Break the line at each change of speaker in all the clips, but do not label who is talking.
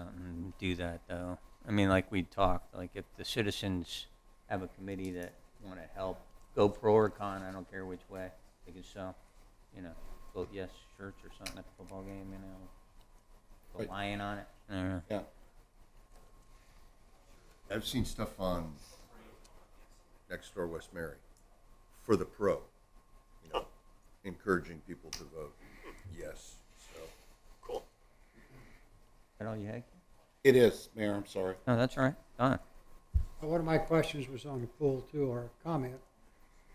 something, do that though. I mean, like we talked, like if the citizens have a committee that want to help, go pro or con, I don't care which way, they can sell, you know, vote yes shirts or something at the football game, you know,
Right.
put lion on it. I don't know.
Yeah. I've seen stuff on next door West Mary for the pro, you know, encouraging people to vote yes. So
Cool.
Is that all you had?
it is, Mayor. I'm sorry.
No, that's all right. Done.
Uh, One of my questions was on the pool too, or comment.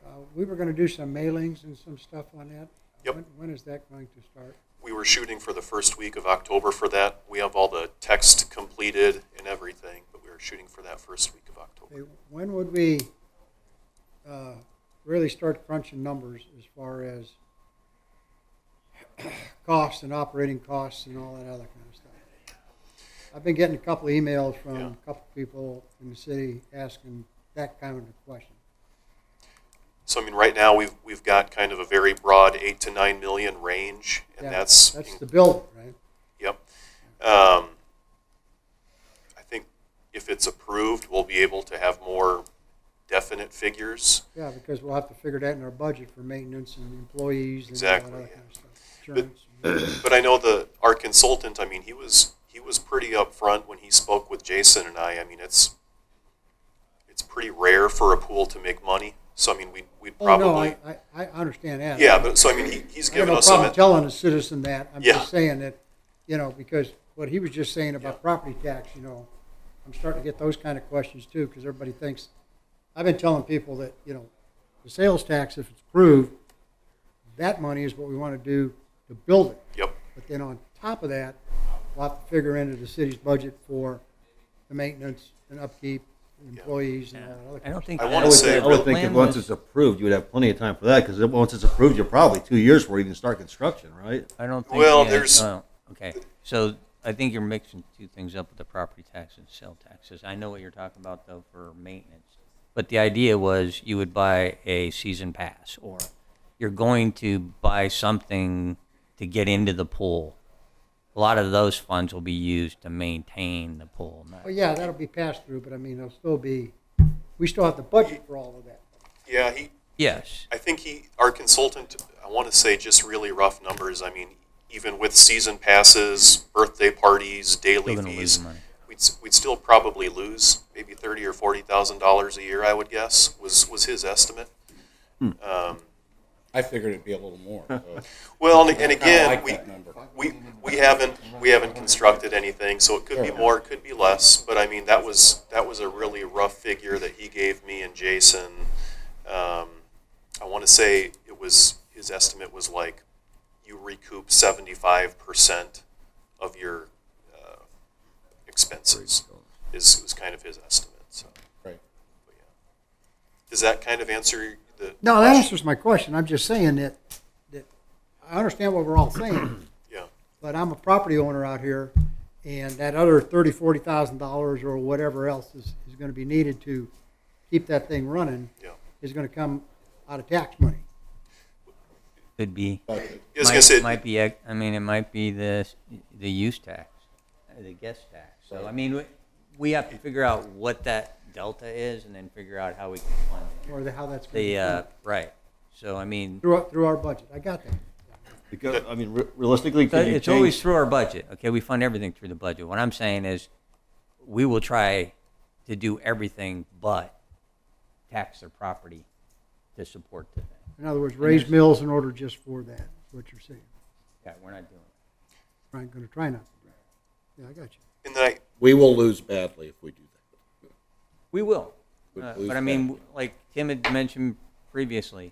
Uh, We were gonna do some mailings and some stuff on that.
Yep.
When- When is that going to start?
We were shooting for the first week of October for that. We have all the text completed and everything, but we were shooting for that first week of October.
Okay, When would we uh, really start crunching numbers as far as costs and operating costs and all that other kind of stuff? I've been getting a couple of emails from
Yeah.
a couple of people in the city asking that kind of question.
So I mean, right now, we've, we've got kind of a very broad eight to nine million range, and
Yeah,
that's.
That's the bill, right?
Yep. Um, I think if it's approved, we'll be able to have more definite figures.
Yeah, because we'll have to figure that in our budget for maintenance and employees and all that
Exactly,
other
yeah.
kind of stuff. Insurance.
But I know the, our consultant, I mean, he was, he was pretty upfront when he spoke with Jason and I. I mean, it's, it's pretty rare for a pool to make money. So I mean, we'd, we'd
Oh, no,
probably,
I, I, I understand that.
yeah, but so I mean, he, he's
I have
given
no
us some,
problem telling a citizen that. I'm
Yeah.
just saying that, you know, because what he was just saying about property tax, you know, I'm starting to get those kind of questions too, because everybody thinks, I've been telling people that, you know, the sales tax, if it's approved, that money is what we want to do to build it.
yep,
But then on top of that, we'll have to figure into the city's budget for the maintenance and upkeep, employees and all that other.
I don't
kind of
think.
I
I
wanna
would,
say-
think- I would think
Plan
if once
was-
it's approved, you would have plenty of time for that because once it's approved, you're probably two years before you can start construction, right?
I don't think.
Well,
yeah,
there's-
oh, Okay, so I think you're mixing two things up with the property tax and sale taxes. I know what you're talking about though for maintenance. But the idea was you would buy a season pass or you're going to buy something to get into the pool. A lot of those funds will be used to maintain the pool. not-
Well, yeah, that'll be passed through, but I mean, it'll still be, we still have the budget for all of that.
yeah, he,
Yes,
I think he, our consultant, I want to say just really rough numbers. I mean, even with season passes, birthday parties, daily
still gonna lose
fees,
money.
we'd, s- we'd still probably lose maybe thirty or forty thousand dollars a year. I would guess was was his estimate.
Hmm.
Um,
I figured it'd be a little more. so.
well, and, and
I kinda
again,
like
we,
that number.
we we haven't we haven't constructed anything, so it could be more, it could be less. But I mean, that was that was a really rough figure that he gave me and Jason. Um, I want to say it was his estimate was like you recoup seventy five percent of your uh, expenses is was kind of his estimate. So
Right.
but yeah. does that kind of answer the
No, that
question?
answers my question. I'm just saying that, that, I understand what we're all saying,
yeah
but I'm a property owner out here, and that other thirty, forty thousand dollars or whatever else is, is gonna be needed to keep that thing running
yeah.
is gonna come out of tax money.
Could be.
Budget.
I was
might,
gonna say
might be. ex- I mean, it might be the the use tax, uh, the guest tax. So I mean, we, we have to figure out what that delta is, and then figure out how we can fund it.
Or the, how that's gonna be
The uh,
funded.
right. So I mean,
Through, our- through our budget. I got that.
Because I mean, re- realistically,
so
could you
it's
change-
always through our budget. Okay, we fund everything through the budget. What I'm saying is, we will try to do everything but tax their property to support the thing.
In other words, raise mills in order just for that, is what you're saying.
Yeah, we're not doing. It.
I'm gonna try not to. do that. Yeah, I got you.
and then I,
We will lose badly if we do that.
We will.
We
Uh,
lose
But I mean, w- like Tim had mentioned previously,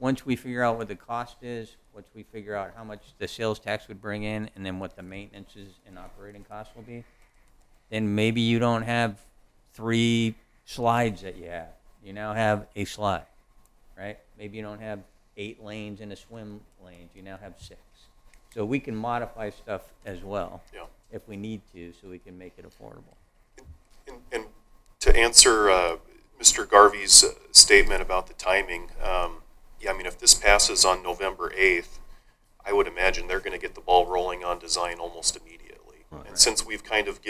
once we figure out what the cost is, once we figure out how much the sales tax would bring in, and then what the maintenance is and operating costs will be, then maybe you don't have three slides that you have. You now have a slide, right? Maybe you don't have eight lanes and a swim lane. You now have six. So we can modify stuff as well
yeah.
if we need to, so we can make it affordable.
And, and to answer uh, Mr. Garvey's uh, statement about the timing, um, yeah, I mean, if this passes on November 8th, I would imagine they're going to get the ball rolling on design almost immediately. And since we've kind of given